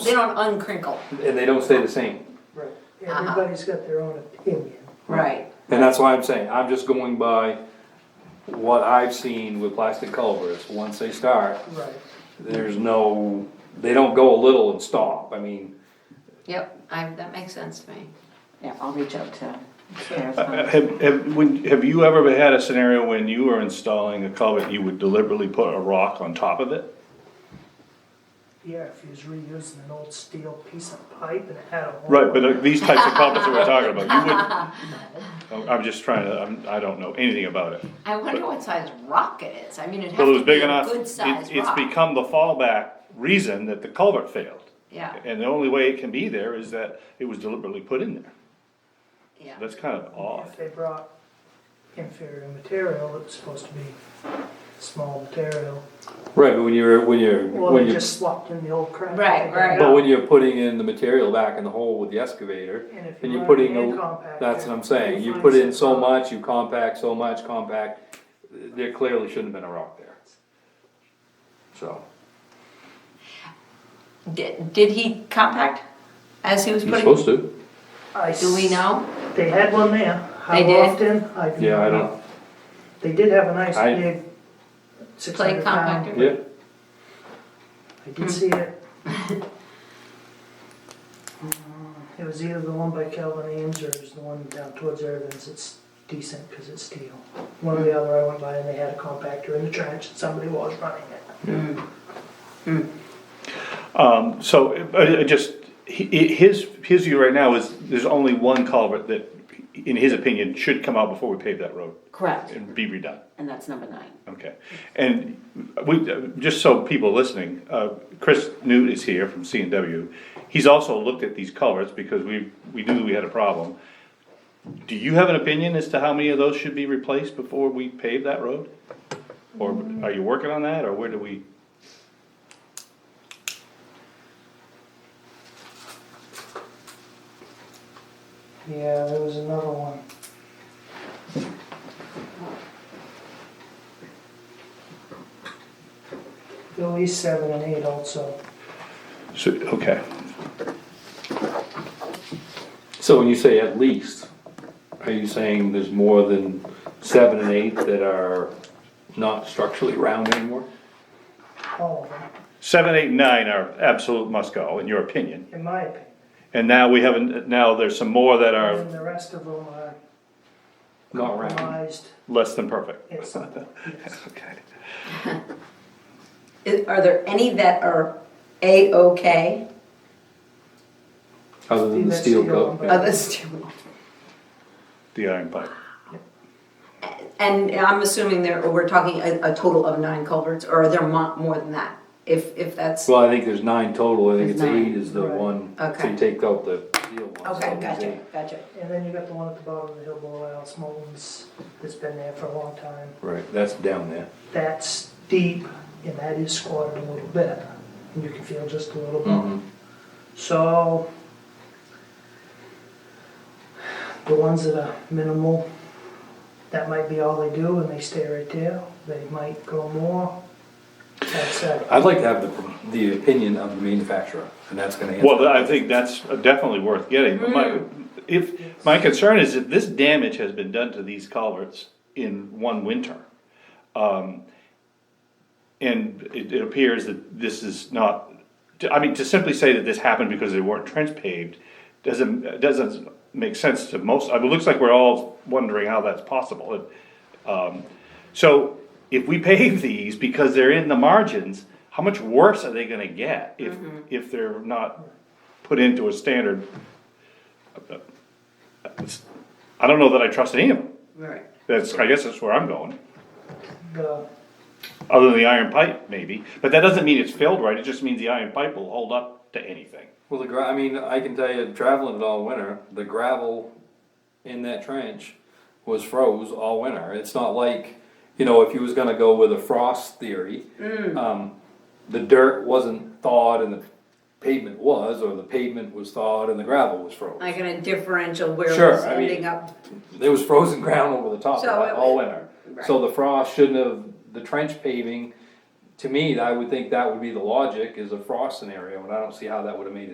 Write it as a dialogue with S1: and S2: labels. S1: They don't uncrinkle.
S2: and they don't stay the same.
S3: Right, everybody's got their own opinion.
S1: Right.
S2: And that's why I'm saying, I'm just going by what I've seen with plastic culverts, once they start,
S3: Right.
S2: there's no, they don't go a little and stop, I mean.
S1: Yep, I, that makes sense to me.
S4: Yeah, I'll reach out to Karen.
S5: Have, have, when, have you ever had a scenario when you were installing a culvert, you would deliberately put a rock on top of it?
S3: Yeah, if he was reusing an old steel piece of pipe and it had a hole.
S5: Right, but uh, these types of culverts that we're talking about, you would, I'm just trying to, I'm, I don't know anything about it.
S1: I wonder what size rock it is. I mean, it'd have
S5: But it was
S1: to be
S5: big
S1: a
S5: enough,
S1: good
S5: it-
S1: sized
S5: it's
S1: rock.
S5: become the fallback reason that the culvert failed.
S1: Yeah,
S5: And the only way it can be there is that it was deliberately put in there.
S1: yeah.
S5: That's kind of
S3: If
S5: odd.
S3: they brought inferior material, it was supposed to be small material.
S2: Right, but when you're, when you're,
S3: Well,
S2: when
S3: they
S2: you're,
S3: just slopped in the old crap.
S1: Right,
S3: they
S1: right.
S3: got
S2: but
S3: out.
S2: when you're putting in the material back in the hole with the excavator,
S3: And if
S2: and
S3: you
S2: you're
S3: run a
S2: putting,
S3: hand
S2: a-
S3: compactor,
S2: that's what I'm saying, you
S3: find
S2: put in so
S3: some-
S2: much, you compact so much, compact, there clearly shouldn't have been a rock there. So,
S1: Did, did he compact as he was
S2: you're
S1: putting?
S2: supposed to,
S3: I
S1: Do we
S3: s-
S1: know?
S3: They had one there. How
S1: They did?
S3: often? I do
S2: yeah, I
S3: not
S2: don't,
S3: know. They did have a nice
S2: I-
S3: big six
S1: Play
S3: hundred pound.
S1: compactor?
S2: yeah,
S3: I did see it. Uh, It was either the one by Calvin Ames or it was the one down towards Irvin's, it's decent because it's steel. One or the other, I went by and they had a compactor in the trench and somebody was running it.
S5: Um, so, uh, uh, just, he- he- his, his view right now is, there's only one culvert that, in his opinion, should come out before we pave that road
S4: Correct,
S5: and be redone.
S4: and that's number nine.
S5: Okay, and we, just so people listening, uh, Chris Newt is here from C and W. He's also looked at these culverts because we, we knew we had a problem. Do you have an opinion as to how many of those should be replaced before we pave that road? Or are you working on that, or where do we?
S3: Yeah, there was another one. At least seven and eight also.
S5: So, okay,
S2: so when you say at least, are you saying there's more than seven and eight that are not structurally round anymore?
S3: all of them,
S5: seven, eight, nine are absolute must go, in your opinion.
S3: in my opinion.
S5: And now we haven't, now there's some more that
S3: And
S5: are
S3: then the rest of them are
S2: Not round,
S3: compromised.
S5: less than perfect.
S3: Yes.
S5: Okay.
S1: Is- Are there any that are A-okay?
S2: other than the
S3: That's
S2: steel
S3: steel
S2: coat.
S3: one,
S2: yeah.
S3: but-
S1: Others do.
S5: The iron pipe.
S1: And I'm assuming there, we're talking a, a total of nine culverts, or are there mo- more than that? If, if that's,
S2: Well, I think there's nine total, I think it's
S4: There's nine.
S2: eight is the
S3: Right.
S2: one, so
S1: Okay.
S2: you take out the steel one. so
S1: okay,
S2: it's
S1: gotcha,
S2: eight.
S1: gotcha.
S3: And then you got the one at the bottom of the hill below Alice Moulton's that's been there for a long time.
S2: Right, that's down there.
S3: That's deep and that is squatted a little bit. And you can feel just a little bump. So the ones that are minimal, that might be all they do and they stay right there. They might go more. That's it.
S2: I'd like to have the, the opinion of the manufacturer, and that's gonna answer. Mm-hmm.
S5: Well, I think that's definitely worth getting, but my, if, my concern is that this damage has been done to these culverts in one winter. Um, And it, it appears that this is not, I mean, to simply say that this happened because they weren't trench paved doesn't, doesn't make sense to most, I mean, it looks like we're all wondering how that's possible. And, um, So if we pave these because they're in the margins, how much worse are they gonna get if,
S2: Mm-hmm.
S5: if they're not put into a standard? I don't know that I trust any of them.
S1: Right.
S5: That's, I guess that's where I'm going,
S3: The-
S5: other than the iron pipe maybe, but that doesn't mean it's filled right, it just means the iron pipe will hold up to anything.
S2: Well, the gra, I mean, I can tell you, traveling it all winter, the gravel in that trench was froze all winter. It's not like, you know, if you was gonna go with a frost theory,
S1: Mm.
S2: um, the dirt wasn't thawed and the pavement was, or the pavement was thawed and the gravel was froze.
S1: Like in a differential where
S2: Sure,
S1: it's
S2: I mean-
S1: ending up,
S2: There was frozen ground over the top of
S1: Uh-huh. So
S2: it
S1: it
S2: all
S1: was-
S2: winter. So the frost shouldn't have, the trench paving to me, I would think that would be the logic is a frost scenario, and I don't see how that would have made a